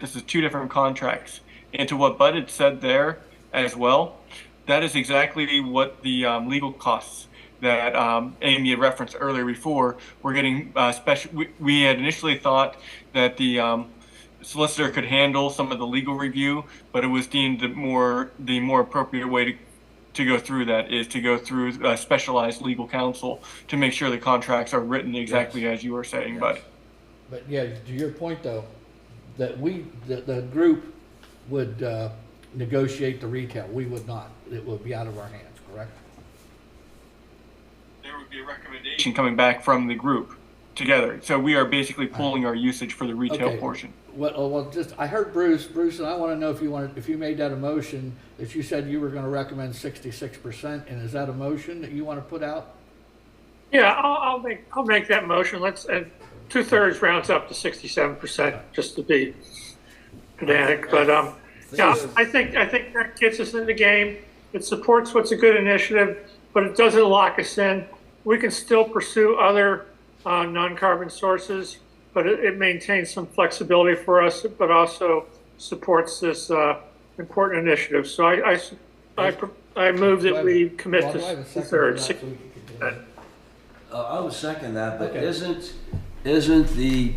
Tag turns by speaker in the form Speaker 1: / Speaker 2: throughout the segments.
Speaker 1: this is two different contracts. And to what Bud had said there as well, that is exactly what the um, legal costs that um, Amy had referenced earlier before. We're getting uh, special. We, we had initially thought that the um, solicitor could handle some of the legal review, but it was deemed the more the more appropriate way to to go through that is to go through uh, specialized legal counsel to make sure the contracts are written exactly as you were saying, Bud.
Speaker 2: But yeah, to your point though, that we, that the group would uh, negotiate the retail, we would not. It would be out of our hands, correct?
Speaker 1: there would be a recommendation coming back from the group together. So we are basically pulling our usage for the retail
Speaker 2: Okay.
Speaker 1: portion.
Speaker 2: Well, uh, well, just, I heard Bruce, Bruce, and I want to know if you wanted, if you made that a motion, if you said you were going to recommend sixty-six percent, and is that a motion that you want to put out?
Speaker 3: Yeah, I'll, I'll make, I'll make that motion. Let's, and two-thirds rounds up to sixty-seven percent, just to be pedantic, but, um, yeah, I think, I think that gets us in the game. It supports what's a good initiative, but it doesn't lock us in. We can still pursue other, uh, non-carbon sources, but it, it maintains some flexibility for us, but also supports this, uh, important initiative. So I, I, s- I pr- I move
Speaker 2: Do I
Speaker 3: that
Speaker 2: have-
Speaker 3: we commit
Speaker 2: Bob,
Speaker 3: to
Speaker 2: do I have a second for
Speaker 3: two-thirds.
Speaker 2: that, so we can do that?
Speaker 4: Uh, I would second that, but
Speaker 2: Okay.
Speaker 4: isn't, isn't the,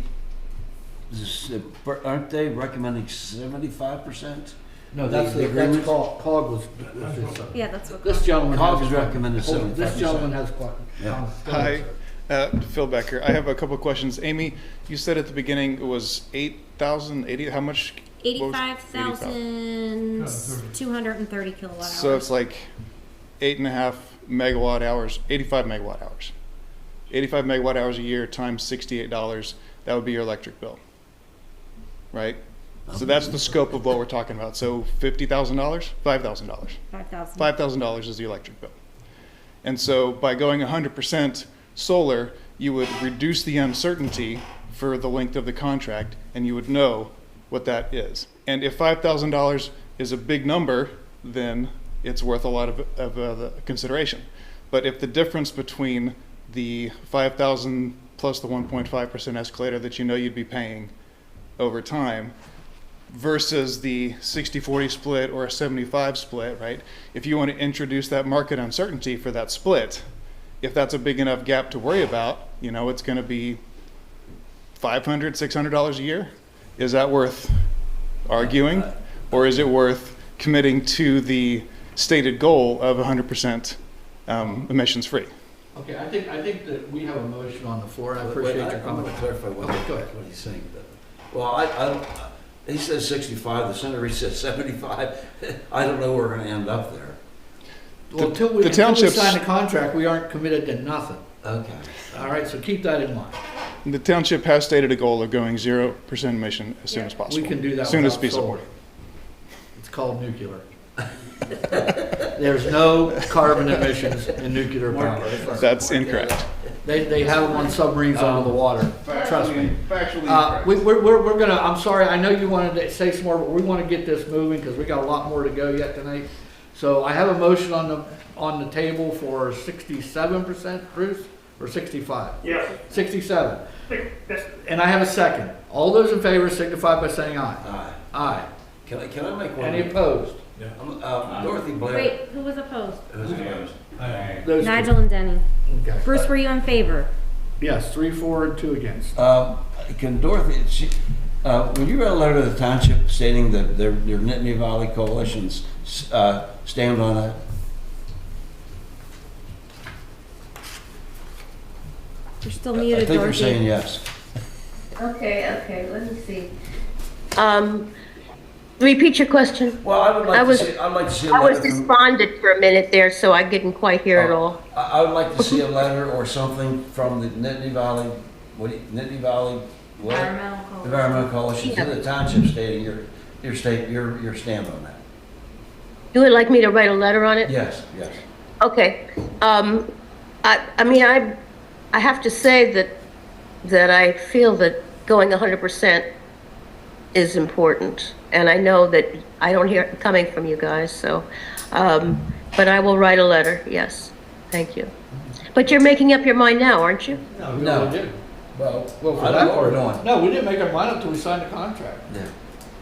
Speaker 4: s- aren't they recommending seventy-five percent?
Speaker 2: No, that's,
Speaker 4: The
Speaker 2: the- that's
Speaker 4: agreement?
Speaker 2: COG, COG was, was this, uh,
Speaker 5: Yeah, that's what.
Speaker 2: this gentleman. has-
Speaker 4: COG is recommended
Speaker 2: Hold on, This
Speaker 4: 75%.
Speaker 2: gentleman has. qua-
Speaker 4: Yeah.
Speaker 6: Hi, uh, Phil Becker. I have a couple of questions. Amy, you said at the beginning it was 8,000, 80, how much? what was-
Speaker 5: Eighty-five thousand, two hundred and thirty kilowatt hours.
Speaker 6: So it's like eight and a half megawatt hours, 85 megawatt hours. 85 megawatt hours a year times $68, that would be your electric bill. Right? So that's the scope of what we're talking about. So $50,000, $5,000.
Speaker 5: Five thousand.
Speaker 6: five thousand dollars is the electric bill. And so by going hundred percent solar, you would reduce the uncertainty for the length of the contract and you would know what that is. And if five thousand dollars is a big number, then it's worth a lot of, of uh, the consideration. But if the difference between the five thousand plus the one point five percent escalator that you know you'd be paying over time versus the 60-40 split or a 75 split, right? If you want to introduce that market uncertainty for that split, if that's a big enough gap to worry about, you know, it's going to be 500, 600 dollars a year. Is that worth arguing,
Speaker 2: Uh,
Speaker 6: or is it worth committing to the stated goal of 100% um, emissions free?
Speaker 2: Okay, I think, I think that we have a motion on the floor, and I
Speaker 4: Wait,
Speaker 2: appreciate
Speaker 4: I-
Speaker 2: your
Speaker 4: I'm
Speaker 2: comment.
Speaker 4: gonna clarify what,
Speaker 2: Okay, go ahead.
Speaker 4: what he's saying. Well, I, I, don't- he says sixty-five, the senator says seventy-five. I don't know where we're gonna end up there.
Speaker 2: Well, until we,
Speaker 6: the
Speaker 2: until we
Speaker 6: townships-
Speaker 2: sign the contract, we aren't committed to nothing.
Speaker 4: Okay.
Speaker 2: All right, so keep that in mind.
Speaker 6: The township has stated a goal of going 0% emission as soon as possible.
Speaker 2: We can do that
Speaker 6: Soon as
Speaker 2: without solar.
Speaker 6: feasible.
Speaker 2: It's called nuclear. There's no carbon emissions in nuclear power.
Speaker 6: That's incorrect.
Speaker 2: They, they have them on submarines under the water, trust me.
Speaker 7: Um, Factually
Speaker 2: Uh,
Speaker 7: incorrect.
Speaker 2: we, we're, we're, we're gonna, I'm sorry, I know you wanted to say some more, but we wanna get this moving, cause we got a lot more to go yet tonight. So I have a motion on the, on the table for sixty-seven percent, Bruce, or sixty-five?
Speaker 3: Yeah.
Speaker 2: Sixty-seven.
Speaker 3: That's-
Speaker 2: And I have a second. All those in favor signify by saying aye.
Speaker 4: Aye.
Speaker 2: Aye.
Speaker 4: Can I, can I make one?
Speaker 2: Any opposed?
Speaker 4: Um, uh, Dorothy Blair.
Speaker 5: Wait, who was opposed?
Speaker 4: who's-
Speaker 2: Those two.
Speaker 5: Nigel and Denny.
Speaker 2: Okay.
Speaker 5: Bruce, were you in favor?
Speaker 2: Yes, three for and two against.
Speaker 4: Um, Can Dorothy, she, uh, when you wrote a letter to the township stating that their, their Nittany Valley Coalition's, uh, stand on it?
Speaker 5: You're still
Speaker 4: I
Speaker 5: muted,
Speaker 4: think you're saying
Speaker 5: Dorothy.
Speaker 4: yes.
Speaker 8: Okay, okay, let me see. Um, repeat your question.
Speaker 4: Well, I would
Speaker 8: I
Speaker 4: like to
Speaker 8: was-
Speaker 4: see, I'd like to see a
Speaker 8: I was
Speaker 4: letter from, oh,
Speaker 8: despondent for a minute there, so I didn't quite hear it all.
Speaker 4: I, I would like to see a letter or something from the Nittany Valley, what, do you- Nittany Valley, what? Environmental Coalition to the township stating your, your state, your, your stand on that.
Speaker 8: You would like me to write a letter on it?
Speaker 4: Yes, yes.
Speaker 8: Okay. Um, I, I mean, I, I have to say that, that I feel that going 100% is important. And I know that I don't hear it coming from you guys, so, um, but I will write a letter, yes. Thank you. But you're making up your mind now, aren't you?
Speaker 2: No,
Speaker 4: No.
Speaker 2: didn't.
Speaker 4: Well,
Speaker 2: Well, for that
Speaker 4: I don't know what we're
Speaker 2: part-
Speaker 4: doing.
Speaker 2: No, we didn't make our mind up till we signed the contract.
Speaker 4: Yeah.